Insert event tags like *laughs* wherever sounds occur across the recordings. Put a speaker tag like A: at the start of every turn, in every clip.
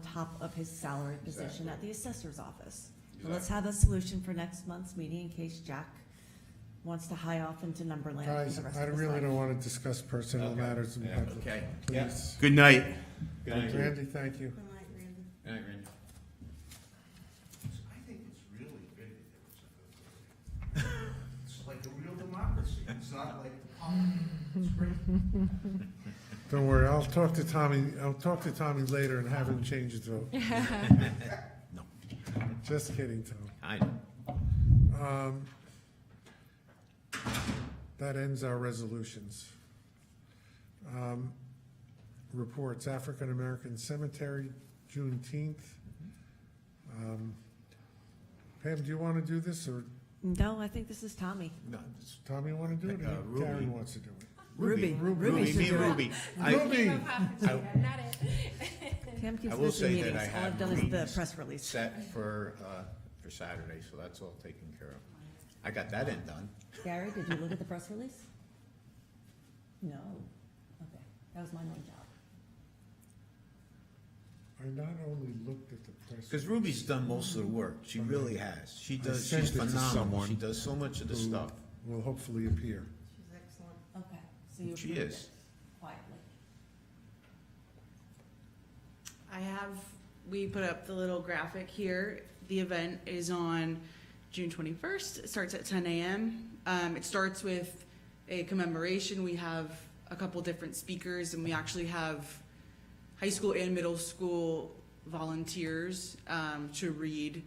A: top of his salary position at the assessor's office. And let's
B: Exactly.
A: have a solution for next month's meeting in case Jack wants to high off into Numberland for
C: Guys,
A: the rest
C: I
A: of his
C: really
A: life.
C: don't want to discuss personal
B: Okay.
C: matters in
B: Yeah.
C: public,
D: Okay.
B: Yeah.
C: please.
D: Good night.
B: Good idea.
C: Randy, thank you.
B: Good idea, Randy.
E: I think it's really big that there was a vote. It's like a real democracy, it's not like the pump, it's great.
C: Don't worry, I'll talk to Tommy, I'll talk to Tommy later and have him change
A: *laughs*
C: his vote.
D: No.
C: Just kidding, Tom.
D: I know.
C: Um, That ends our resolutions. Um, Reports, African American Cemetery, Juneteenth. Um, Pam, do you want to do this, or
A: No, I think this is Tommy.
D: No, it's
C: Tommy want to do it,
D: Uh,
C: or
D: Ruby.
C: Karen wants to do it?
A: Ruby.
C: Ruby.
D: Ruby,
A: should
D: me,
A: do it.
D: Ruby. I,
C: Ruby!
F: Not it.
A: Pam keeps
D: I will
A: missing
D: say that I
A: meetings. All I've
D: have
A: done is the
D: meetings
A: press release.
D: set for, uh, for Saturday, so that's all taken care of. I got that end done.
A: Gary, did you look at the press release? No. Okay, that was my main job.
C: I not only looked at the press.
D: Because Ruby's done most of the work. She really has. She does,
C: sent
D: she's
C: it to
D: phenomenal.
C: someone
D: She does so much of the
C: who
D: stuff.
C: Will hopefully appear.
F: She's excellent.
A: Okay, so you
D: She
A: approved
D: is.
A: it quietly.
G: I have, we put up the little graphic here. The event is on June 21st. It starts at 10 a.m. Um, it starts with a commemoration. We have a couple different speakers, and we actually have high school and middle school volunteers um, to read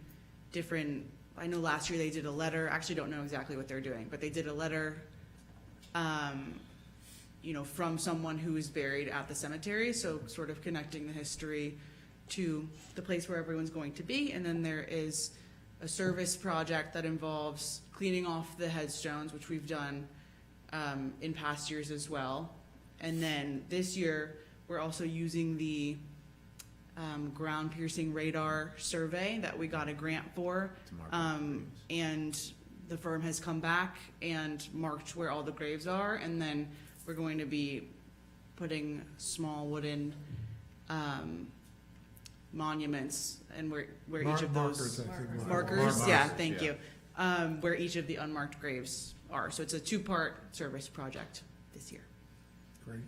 G: different. I know last year they did a letter. Actually, don't know exactly what they're doing, but they did a letter. Um, you know, from someone who is buried at the cemetery, so sort of connecting the history to the place where everyone's going to be. And then there is a service project that involves cleaning off the headstones, which we've done um, in past years as well. And then this year, we're also using the um, ground piercing radar survey that we got a grant for.
D: to mark
G: Um,
D: things.
G: and the firm has come back and marked where all the graves are, and then we're going to be putting small wooden, um, monuments and where, where each
C: Mar-
G: of
C: Markers,
G: those.
C: I think.
G: Markers, yeah,
D: Markers,
G: thank
D: yeah.
G: you, um, where each of the unmarked graves are, so it's a two-part service project this year.
C: Great.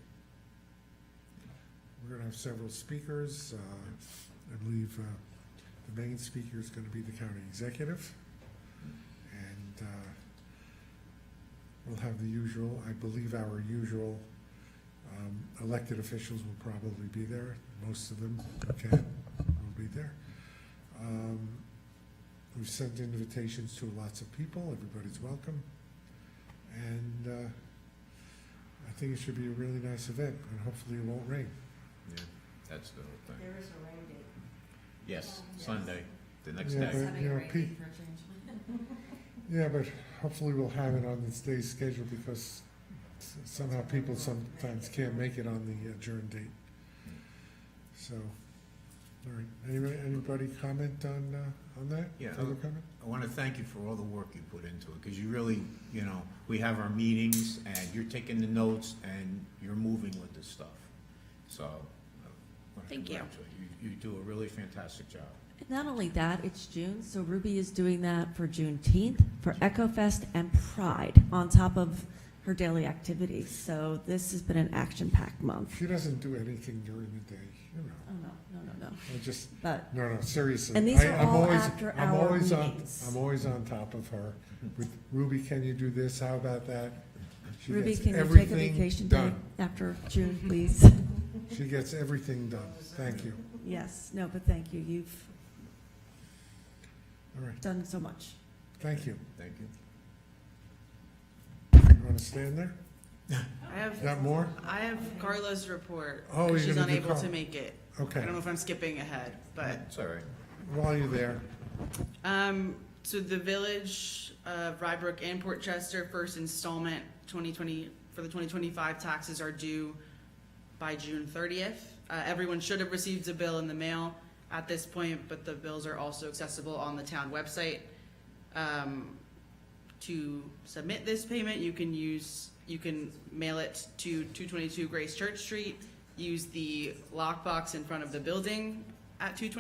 C: We're gonna have several speakers. Uh, I believe uh, the main speaker is gonna be the county executive. And uh, we'll have the usual, I believe our usual um, elected officials will probably be there. Most of them who can, will be there. Um, We've sent invitations to lots of people. Everybody's welcome. And uh, I think it should be a really nice event, and hopefully it won't rain.
D: Yeah, That's the whole thing.
F: There is a rain date.
D: Yes, Sunday, the next
C: Yeah,
D: day.
C: but- you know, Pete- Yeah, but hopefully we'll have it on this day's schedule, because s- somehow people sometimes can't make it on the adjourned date. So, all right, anybody, anybody comment on, uh, on that?
D: Yeah,
C: Further
D: I'll-
C: comment?
D: I want to thank you for all the work you put into it, because you really, you know, we have our meetings, and you're taking the notes, and you're moving with this stuff. So, uh, I want to
G: Thank you.
D: congratulate you. You do a really fantastic job.
A: Not only that, it's June, so Ruby is doing that for Juneteenth, for Echo Fest, and Pride, on top of her daily activities. So this has been an action-packed month.
C: She doesn't do anything during the day, you know,
A: Oh, no, no, no, no.
C: I just,
A: But
C: no, no, seriously.
A: And these
C: I-
A: are
C: I'm
A: all
C: always-
A: after
C: I'm
A: hour
C: always on-
A: meetings.
C: I'm always on top of her, with Ruby, can you do this, how about that? She
A: Ruby,
C: gets
A: can you take a
C: everything
A: vacation day
C: done.
A: after June, please?
C: She gets everything done, thank you.
A: *laughs* Yes, no, but thank you. You've
C: All right,
A: done so much.
C: thank you.
D: Thank you.
C: You want to stand there?
G: I have,
C: Got more?
G: I have Carla's report.
C: Oh, you're
G: She's
C: gonna do
G: unable
C: Carla.
G: to make it. I
C: Okay,
G: don't know if I'm skipping ahead, but
D: It's all right.
C: while you're there,
G: Um, so the village of Rybrook and Port Chester, first installment, twenty twenty, for the twenty twenty-five taxes are due by June thirtieth. Uh, everyone should have received a bill in the mail at this point, but the bills are also accessible on the town website. Um, to submit this payment, you can use, you can mail it to two twenty-two Grace Church Street, use the lockbox in front of the building, at two twenty